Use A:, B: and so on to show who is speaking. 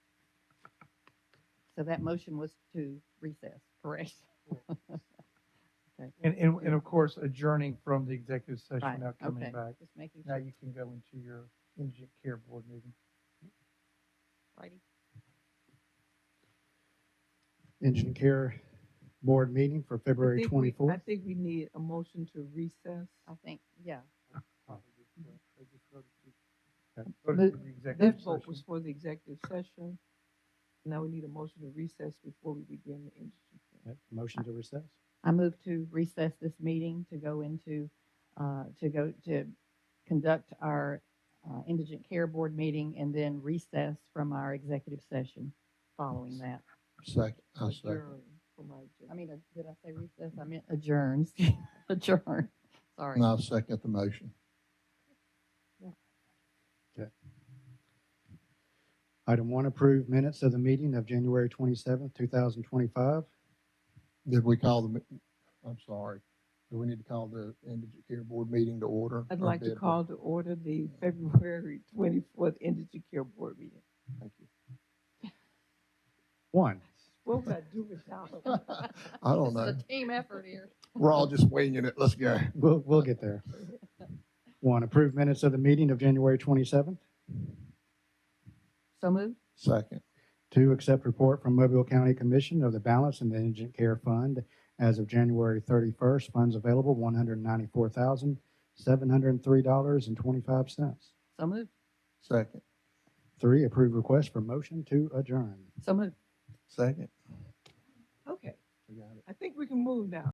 A: So that motion was to recess, correct?
B: And, and, and of course, adjourning from the executive
A: Right,
B: session, now coming
A: okay.
B: back.
A: Just making
B: Now
A: sure.
B: you can go into your indigent care board meeting.
A: Righty.
C: Engine Care Board meeting for February
D: I think we- I
C: twenty-fourth.
D: think we need a motion to recess.
A: I think, yeah.
B: Go to
D: The-
B: the
D: That
B: executive
D: vote was
B: session.
D: for the executive session. Now we need a motion to recess before we begin the industry.
C: Motion to recess.
A: I move to recess this meeting to go into, uh, to go to conduct our uh, indigent care board meeting and then recess from our executive session following that.
E: Second, I second.
D: Adjourn from our agenda.
A: I mean, uh, did I say recess? I meant adjourns. Adjourn. Sorry.
E: And I second the motion.
C: Item one, approved minutes of the meeting of January twenty-seventh, two thousand twenty-five.
E: Did we call the, me- I'm sorry, do we need to call the indigent care board meeting to order?
D: I'd
E: or
D: like to
E: did we?
D: call to order the February twenty-fourth industry care board meeting.
E: Thank you.
C: One,
D: What would I do without them?
E: I don't know.
A: team effort here.
E: We're all just winging it. Let's go.
C: we'll, we'll get there. One, approved minutes of the meeting of January twenty-seventh.
A: So moved?
E: Second,
C: Two, accept report from Mobile County Commission of the balance in the Indigent Care Fund as of January thirty-first. Funds available, one hundred ninety-four thousand, seven hundred three dollars and twenty-five cents.
A: So moved?
E: second,
C: Three, approve request for motion to adjourn.
A: So moved.
E: second.
D: Okay,
E: We got it.
D: I think we can move now.